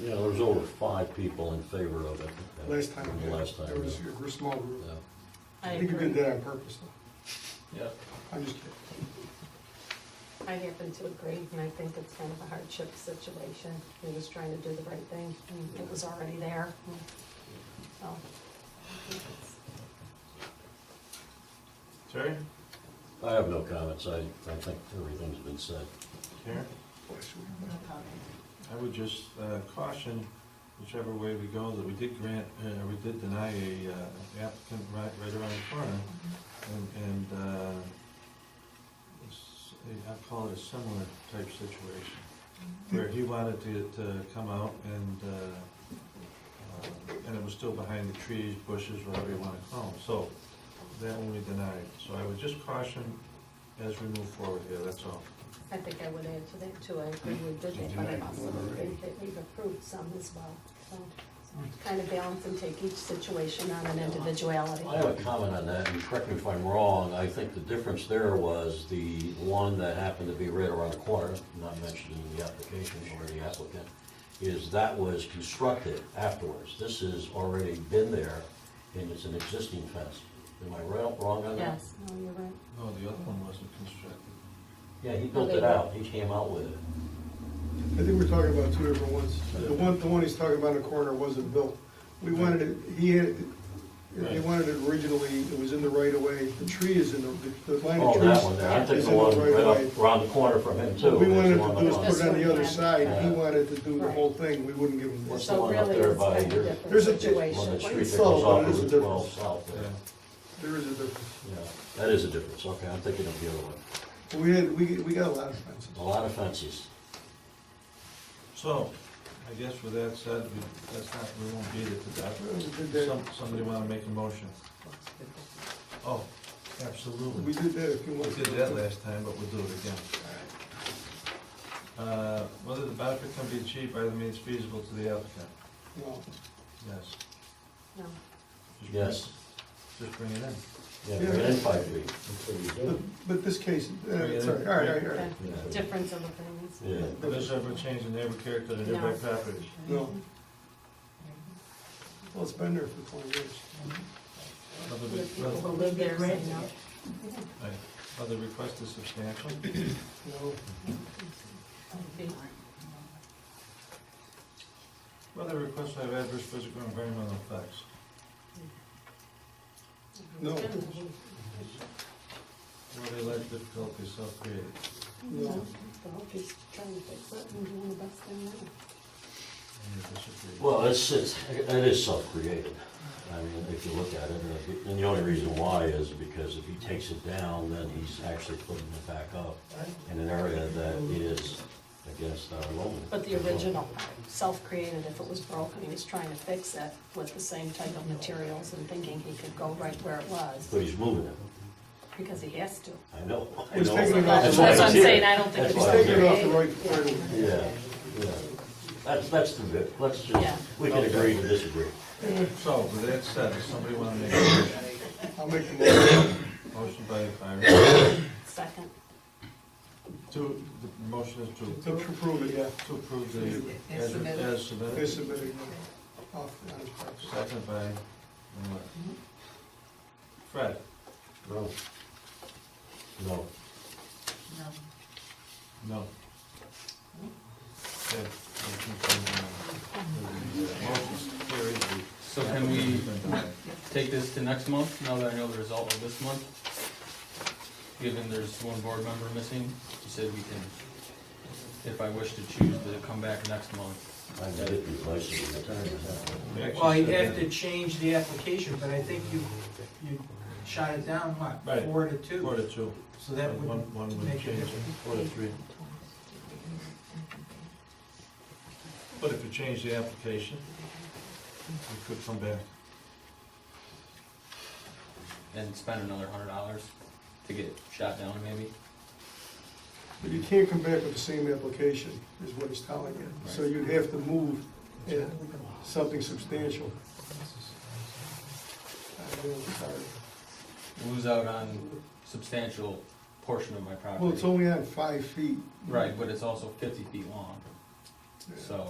Yeah, there was over five people in favor of it. uh, Last time, the yeah, Last time, there was yeah. a small group. Yeah. I I think you did agree. that on purpose, though. Yeah. I'm just kidding. I happen to agree, and I think it's kind of a hardship situation. He was trying to do the right thing, and it was already there. and So. I think it's- Terry? I have no comments, I, I think everything's been said. Karen? Bless you. I would just uh, caution whichever way we go, that we did grant, uh, we did deny a uh, applicant right, right around the corner. And, and, uh, it's- I call it a similar type situation, where he wanted to, to come out and, uh, uh, and it was still behind the trees, bushes, whatever you wanna call them, so that one we denied. So I would just caution as we move forward here, that's all. I think I would add to that too, I agree we did that, but I also think that we've approved some as well. So Kind of balance and take each situation on an individuality. I have a comment on that, and correct me if I'm wrong, I think the difference there was the one that happened to be right around the corner, not mentioned in the application or the applicant, is that was constructed afterwards. This has already been there, and it's an existing fence. Am I right, wrong on that? Yes, no, you're right. No, the other one wasn't constructed. Yeah, he built it out, he came out with it. I think we're talking about two different ones. The one, the one he's talking about in the corner wasn't built. We wanted it, he had, he Right. wanted it originally, it was in the right of way. The tree is in the, the line of Oh, trees. that one there, I think is the in right one right of way. up around the corner from him too. We is the wanted one to do up is on- put it on the other This one, side, yeah. he wanted to do the Right. whole thing, we wouldn't give him What's this. the So one up really, there it's by kind of your- different There's a- One that situation. street that Well, it's solid, but it goes off is a Route difference. 12 south there. Yeah. There is a difference. Yeah, that is a difference, okay, I'm thinking of the other one. We had, we, we got a lot of fences. A lot of fences. So, I guess with that said, we, that's not, we won't beat it to We did that. death. Some, somebody wanna make a motion? Oh, absolutely. We did that a few We months did ago. that last time, but we'll do it again. Uh, whether the benefit can be achieved by the means feasible to the applicant, No. yes. No. Just bring- Yes, Just bring it in. yeah, bring it in five feet. But, but this case, uh, Yeah. sorry, all right, all right, all right. Okay. Difference of opinions. Yeah, Does ever change the neighbor character of the No. nearby properties? No. Mm-hmm. Well, it's been there for twenty years. Whether The the- people who whether- live there say no. right. Whether the request is substantial? No, Okay. Whether the request will have adverse physical or environmental effects? No. Whether they lack difficulty self-created? no. I hope he's trying to fix it and doing the best they can. I disagree. Well, it's, it's, it is self-created. I mean, if you look at it, and if- and the only reason why is because if he takes it down, then he's actually putting it back up in an area that is against our law. But the original, self-created, if it was broken, he was trying to fix it with the same type of materials and thinking he could go right where it was, But he's moving it. because he has to. I know. I He's know. taking it off That's That's why what I'm it's here. saying, I don't think That's it's. why He's I'm taking it here. off the right part of it. Yeah, yeah. That's, that's the bit. Let's Yeah. just, we can agree to disagree. So, with that said, does somebody want to make a motion? I'll make the motion. Motion by Byron. Second, To, the motion is To to, approve it, yeah. to approve the, as as They submitted. submitted it off on his property. Second by, Miller. Fred, No. No. no. Mm-hmm. Okay, motion carried. Motion's uh, carried. So can we take this to next month, now that I know the result of this month? Given there's one board member missing, you said we can, if I wish to choose to come back next month. I got it replaced in the time. is The action Well, you'd should have to change the application, but I think you, you shot it down, what, Right. four to be Four two? to two. So that One- would, One would make a change, difference. four to three. But if you change the application, you could come back. And spend another hundred dollars to get shot down maybe? But you can't come back with the same application, is what he's telling you. So you'd have to move uh, something substantial. I know, sorry. Lose out on substantial portion of my Well, it's property. only on five feet. Right, but it's also fifty feet long, Yeah. so